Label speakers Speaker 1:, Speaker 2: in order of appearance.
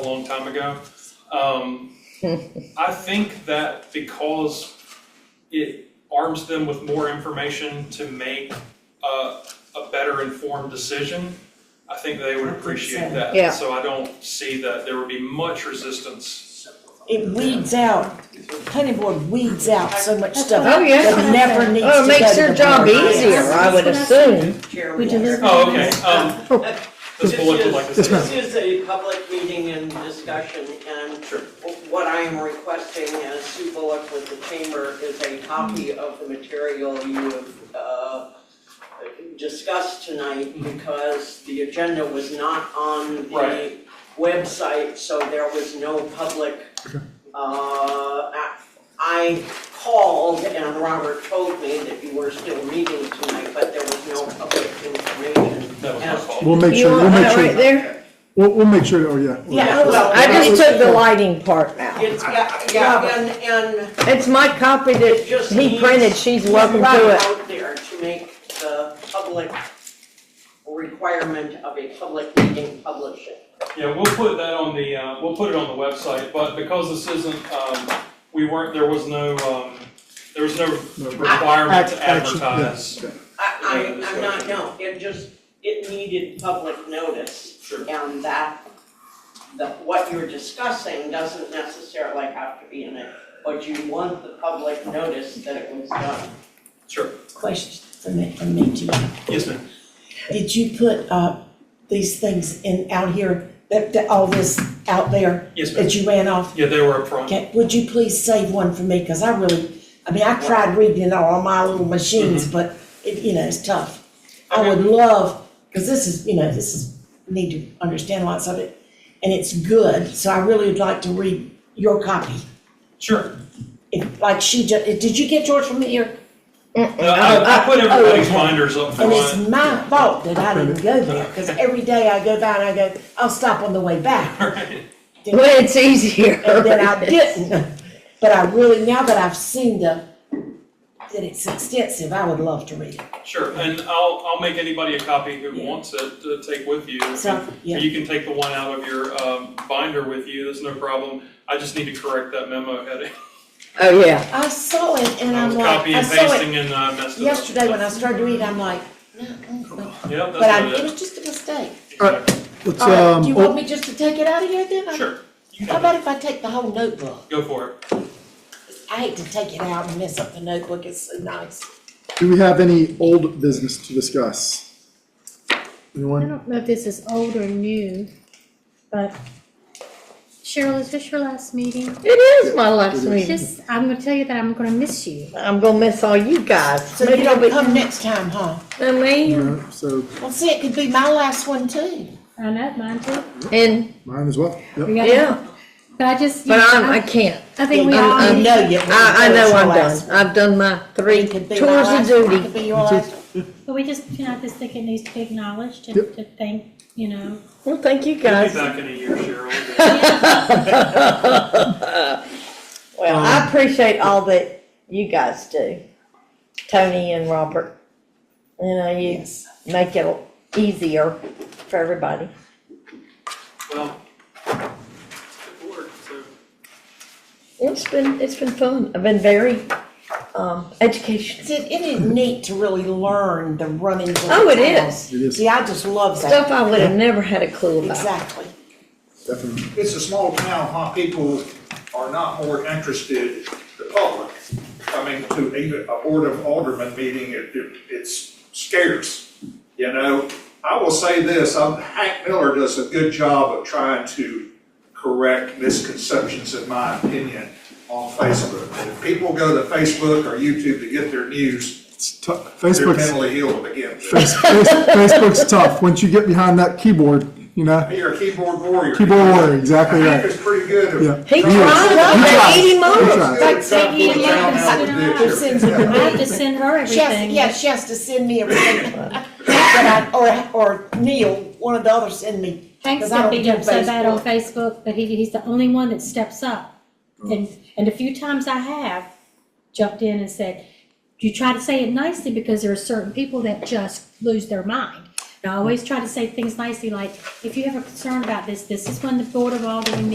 Speaker 1: a long time ago. Um, I think that because it arms them with more information to make a, a better informed decision, I think they would appreciate that.
Speaker 2: Yeah.
Speaker 1: So I don't see that there would be much resistance.
Speaker 3: It weeds out, planning board weeds out so much stuff
Speaker 2: Oh, yeah.
Speaker 3: that never needs to
Speaker 2: Oh,
Speaker 3: go
Speaker 2: it makes
Speaker 3: to
Speaker 2: their
Speaker 3: the
Speaker 2: job
Speaker 3: board.
Speaker 2: easier, I would assume.
Speaker 4: We deliver.
Speaker 1: Oh, okay, um, this
Speaker 5: This
Speaker 1: bullet would like to
Speaker 5: is,
Speaker 1: say.
Speaker 5: this is a public meeting and discussion, and what I am requesting as Sue Bullock with the chamber is a copy
Speaker 1: Mm-hmm.
Speaker 5: of the material you have, uh, discussed tonight, because the agenda was not on the
Speaker 1: Right.
Speaker 5: website, so there was no public, uh, ac- I called and Robert told me that you were still meeting tonight, but there was no public information.
Speaker 1: That was my
Speaker 5: as to
Speaker 1: fault.
Speaker 6: We'll make
Speaker 2: You
Speaker 6: sure, we'll
Speaker 2: want
Speaker 6: make
Speaker 2: that right
Speaker 6: sure,
Speaker 2: there?
Speaker 6: we'll, we'll make sure, uh, oh, yeah.
Speaker 5: Yeah, well,
Speaker 2: I just took the lighting part out.
Speaker 5: It's, yeah, yeah, and, and
Speaker 2: It's my copy
Speaker 5: it
Speaker 2: that
Speaker 5: just
Speaker 2: he printed,
Speaker 5: needs
Speaker 2: she's
Speaker 5: to
Speaker 2: welcome
Speaker 5: run
Speaker 2: to it.
Speaker 5: out there to make the public requirement of a public meeting publishing.
Speaker 1: Yeah, we'll put that on the, uh, we'll put it on the website, but because this isn't, um, we weren't, there was no, um, there was no requirement to
Speaker 6: Action,
Speaker 1: advertise.
Speaker 6: yeah.
Speaker 5: I, I, I'm not,
Speaker 1: Yeah,
Speaker 5: no, it just, it needed public notice.
Speaker 1: Sure.
Speaker 5: And that, that what you're discussing doesn't necessarily have to be in it, but you want the public notice that it was done.
Speaker 1: Sure,
Speaker 3: Question for me, for me too.
Speaker 1: yes, ma'am.
Speaker 3: Did you put, uh, these things in, out here, that, that, all this out there
Speaker 1: Yes, ma'am.
Speaker 3: that you ran off?
Speaker 1: Yeah, they were up front.
Speaker 3: Okay, would you please save one for me, cause I really, I mean, I tried reading it all on my little machines, but it, you know, it's tough. I would love, cause this is, you know, this is, need to understand lots of it, and it's good, so I really would like to read your copy.
Speaker 1: Sure.
Speaker 3: If, like she just, did you get yours from here?
Speaker 1: No, Uh, I, I put everybody's binders up
Speaker 3: And it's
Speaker 1: front.
Speaker 3: my fault that I didn't go there, because every day I go by and I go, I'll stop on the way back,
Speaker 2: Well, it's easier.
Speaker 3: and then I didn't. But I really, now that I've seen the, that it's extensive, I would love to read it.
Speaker 1: Sure, and I'll, I'll make anybody a copy who
Speaker 3: Yeah.
Speaker 1: wants it to take with you.
Speaker 3: So, yeah,
Speaker 1: You can take the one out of your, um, binder with you, there's no problem. I just need to correct that memo heading.
Speaker 2: Oh, yeah.
Speaker 3: I saw it and
Speaker 1: I
Speaker 3: I'm
Speaker 1: was
Speaker 3: like,
Speaker 1: copying
Speaker 3: I
Speaker 1: and
Speaker 3: saw it
Speaker 1: pasting and I messed it up.
Speaker 3: yesterday when I started to read, I'm like, no, mm, no.
Speaker 1: Yep,
Speaker 3: but I,
Speaker 1: that's
Speaker 3: it
Speaker 1: what it
Speaker 3: was just a mistake.
Speaker 1: is.
Speaker 6: All right.
Speaker 1: Exactly.
Speaker 6: Let's,
Speaker 3: All right, do
Speaker 6: um,
Speaker 3: you want
Speaker 6: oh,
Speaker 3: me just to take it out of here then? I-
Speaker 1: Sure, you
Speaker 3: How
Speaker 1: can have
Speaker 3: about if I take the whole notebook?
Speaker 1: it. go for it.
Speaker 3: I hate to take it out and mess up the notebook, it's so nice.
Speaker 6: do we have any old business to discuss?
Speaker 4: I
Speaker 6: Anyone?
Speaker 4: don't know if this is old or new, but Cheryl, is this your last meeting?
Speaker 2: It is my last
Speaker 6: It is.
Speaker 2: meeting.
Speaker 4: Just, I'm gonna tell you that I'm gonna miss you.
Speaker 2: I'm gonna miss all you guys.
Speaker 3: So you don't come next time, huh?
Speaker 2: I mean,
Speaker 6: No, So,
Speaker 3: Well, see, it could be my last one too.
Speaker 4: I know, mine too.
Speaker 2: and,
Speaker 6: mine as well, yep.
Speaker 4: We got-
Speaker 2: yeah,
Speaker 4: But I just, you
Speaker 2: but
Speaker 4: know,
Speaker 2: I'm, I
Speaker 4: I,
Speaker 2: can't.
Speaker 4: I think we
Speaker 2: I'm-
Speaker 4: all
Speaker 2: I'm-
Speaker 4: need
Speaker 3: know you.
Speaker 2: I, I know I'm done. I've done my three tours of
Speaker 3: It
Speaker 2: duty.
Speaker 3: could be your last.
Speaker 4: But we just, you know, I just think it needs to be acknowledged and
Speaker 6: Yep.
Speaker 4: to thank, you know.
Speaker 2: Well, thank you
Speaker 1: We'll be
Speaker 2: guys.
Speaker 1: back in a year, Cheryl.
Speaker 2: Well, I appreciate all that you guys do, Tony and Robert. You know, you
Speaker 3: Yes.
Speaker 2: make it easier for everybody.
Speaker 1: Well, good work, so.
Speaker 2: It's been, it's been fun. I've been very, um, educational.
Speaker 3: See, it is neat to really learn the runnings of the
Speaker 2: Oh, it
Speaker 3: town.
Speaker 2: is.
Speaker 6: It is.
Speaker 3: See, I just love that.
Speaker 2: Stuff I would have never had a clue about.
Speaker 3: Exactly.
Speaker 6: definitely.
Speaker 7: it's a small town, how people are not more interested, the public, coming to even a Board of Alderman meeting, it, it- it's scarce, you know? I will say this, um, Hank Miller does a good job of trying to correct misconceptions, in my opinion, on Facebook. If people go to Facebook or YouTube to get their news,
Speaker 6: It's tough.
Speaker 7: they're
Speaker 6: Facebook's,
Speaker 7: mentally ill to begin with.
Speaker 6: Face- Face- Facebook's tough. Once you get behind that keyboard, you know,
Speaker 7: You're a keyboard warrior.
Speaker 6: keyboard warrior, exactly
Speaker 7: Hank
Speaker 6: right.
Speaker 7: is pretty good.
Speaker 6: Yeah.
Speaker 7: at-
Speaker 2: He
Speaker 6: He
Speaker 2: tried, I
Speaker 6: He
Speaker 2: eat him
Speaker 6: He
Speaker 2: up.
Speaker 6: tried.
Speaker 7: Like
Speaker 4: Peggy, you can sit down. I have to send her
Speaker 3: She has,
Speaker 4: everything.
Speaker 3: yeah, she has to send me everything. But I, or, or Neil, one of the others send me.
Speaker 4: Hank's
Speaker 3: 'cause I
Speaker 4: got
Speaker 3: don't
Speaker 4: beat
Speaker 3: do
Speaker 4: up so bad on
Speaker 3: Facebook.
Speaker 4: Facebook, but he, he's the only one that steps up.
Speaker 3: Mm.
Speaker 4: And, and a few times I have jumped in and said, you try to say it nicely because there are certain people that just lose their mind. And I always try to say things nicely, like, if you have a concern about this, this is when the Board of Aldermen